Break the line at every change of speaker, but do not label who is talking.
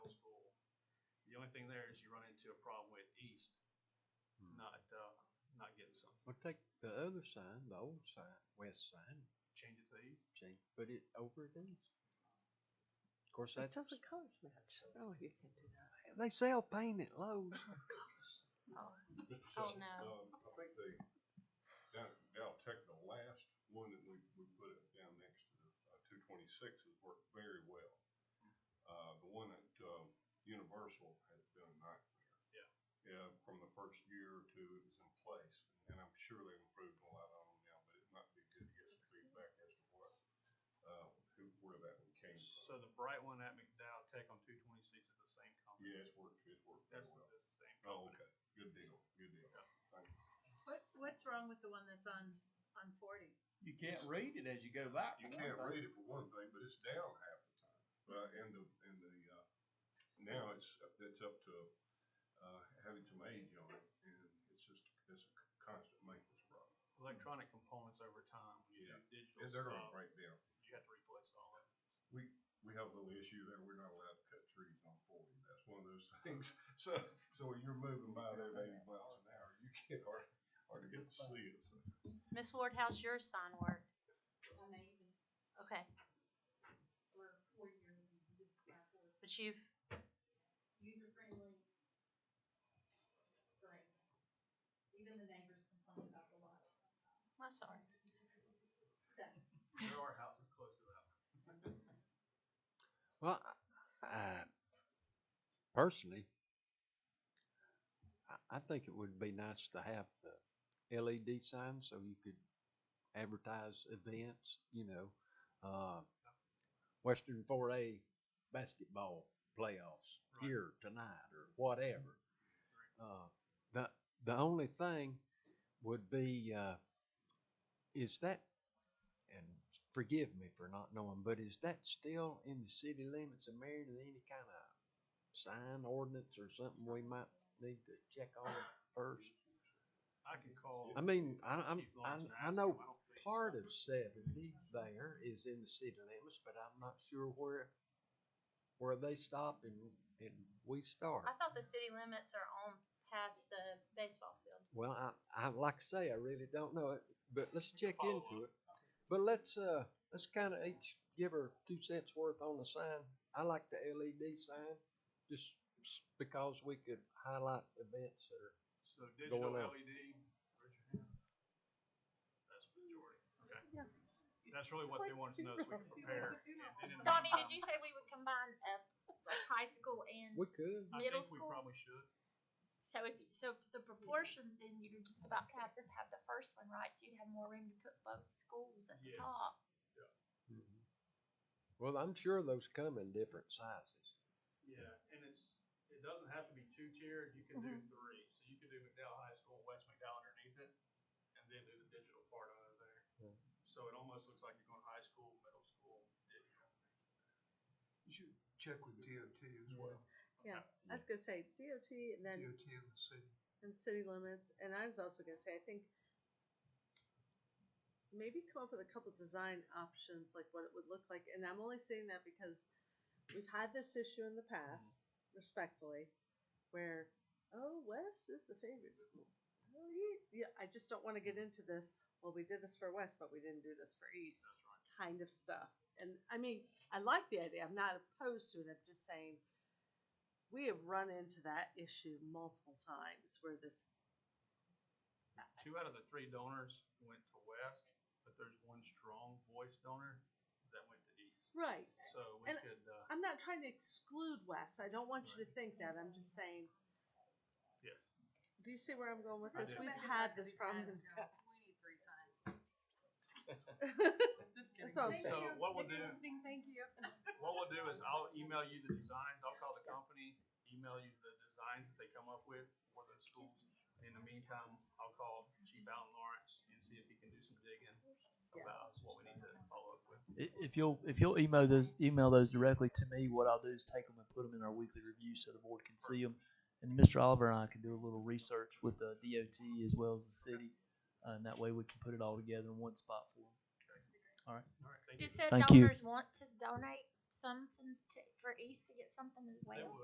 only thing there is you run into a problem with east,
Hmm.
not, uh, not getting something.
Well, take the other sign, the old sign, west sign,
Change it to east.
change, put it over at east. Of course,
It
that's,
doesn't color match. No, you can't do that.
they sell paint at Lowe's.
Oh, no.
Um, I think they, down, down Tech, the last one that we, we put it down next to the, uh, two twenty-six has worked very well. Uh, the one at, um, Universal has been a nightmare.
Yeah.
Yeah, from the first year or two it was in place, and I'm sure they've improved a lot on them now, but it might be good to get some feedback as to what, uh, who, where that one came
So
from.
the bright one at McDowell Tech on two twenty-six is the same company.
Yeah, it's worked, it's worked very
That's,
well.
that's the same
Oh,
company.
okay, good deal, good deal, thank you.
What, what's wrong with the one that's on, on forty?
You can't read it as you go by.
You can't read it for one thing, but it's down half the time. Uh, and the, and the, uh, now it's, it's up to, uh, having some age on it and it's just, it's a constant maintenance problem.
Electronic components over time, when you do digital
And they're gonna
stuff,
break down.
you have to replace all of it.
We, we have a little issue there. We're not allowed to cut trees on forty. That's one of those things. So, so when you're moving by there at eighty miles an hour, you can't hardly, hardly get to see it. So
Miss Ward, how's your sign work?
amazing.
Okay,
We're, we're your, this is my fourth.
but you've,
user friendly. Great. Even the neighbors complain about the lights sometimes.
I'm sorry.
So,
There are houses close to that.
Well, I, I personally, I, I think it would be nice to have the LED sign so you could advertise events, you know, uh, Western 4A basketball playoffs
Right.
here tonight or whatever. Uh, the the only thing would be uh, is that and forgive me for not knowing, but is that still in the city limits of Marion? Any kind of sign ordinance or something we might need to check on first?
I can call.
I mean, I, I'm,
Chief Lawrence
I,
and ask
I
him. I
know
don't think
part
so.
of seventy there is in the city limits, but I'm not sure where where they stop and and we start.
I thought the city limits are on past the baseball field.
Well, I, I like I say, I really don't know it, but let's check
Follow up.
into it. But let's uh, let's kind of each give her two cents worth on the sign. I like the LED sign, just s- because we could highlight events that are.
So digital
Going out.
LED, raise your hand. That's the majority,
Yeah.
okay? That's really what they wanted to know, so we can prepare. And then in the
Donnie,
meantime,
did you say we would combine a, a high school and,
We could.
I
middle
think we
school?
probably should.
so if, so if the proportions, then you're just about to have to have the first one right, so you'd have more room to put both schools at
Yeah.
the top.
Mm-hmm. Well, I'm sure those come in different sizes.
Yeah, and it's, it doesn't have to be two-tiered, you can do
Mm-hmm.
three. So you could do McDowell High School, West McDowell underneath it, and then do the digital part under there.
Yeah.
So it almost looks like you're going high school, middle school, digital.
You should check with DOT as well,
Yeah, I was gonna say DOT and
DOT
then
and the city.
and city limits, and I was also gonna say I think maybe come up with a couple design options like what it would look like, and I'm only saying that because we've had this issue in the past,
Mm-hmm.
respectfully, where oh West is the favorite school. Oh, ye- yeah, I just don't want to get
Mm-hmm.
into this. Well, we did this for West, but we didn't do this for East
That's right.
kind of stuff. And I mean, I like the idea. I'm not opposed to it. I'm just saying we have run into that issue multiple times where this
Two out of the three donors went to West, but there's one strong voice donor that went to East.
right.
So we
And-
could, uh,
I'm not trying to exclude West. I don't want you to think that. I'm just saying.
yes.
Do you see where I'm going with
I
this?
do.
We've had this problem. in the
We need three signs.
past.
Just
kidding. all I'm
Thank
saying.
you.
So what we'll
If you're
do-
listening, thank you.
What we'll do is I'll email you the designs, I'll call the company, email you the designs that they come up with for those schools. And In the meantime, I'll call Chief Allen Lawrence and see if he can do some digging about what we need to follow up with.
I- If you'll if you'll email those email those directly to me, what I'll do is take them and put them in our weekly review so the board can see them, and Mr. Oliver and I can do a little research with the DOT as well as the city, uh, and that way we can put it all together in one spot for them.
All right, thank you.
Do said
Thank you.
donors want to donate something to, for East to get something as
They
well?
will.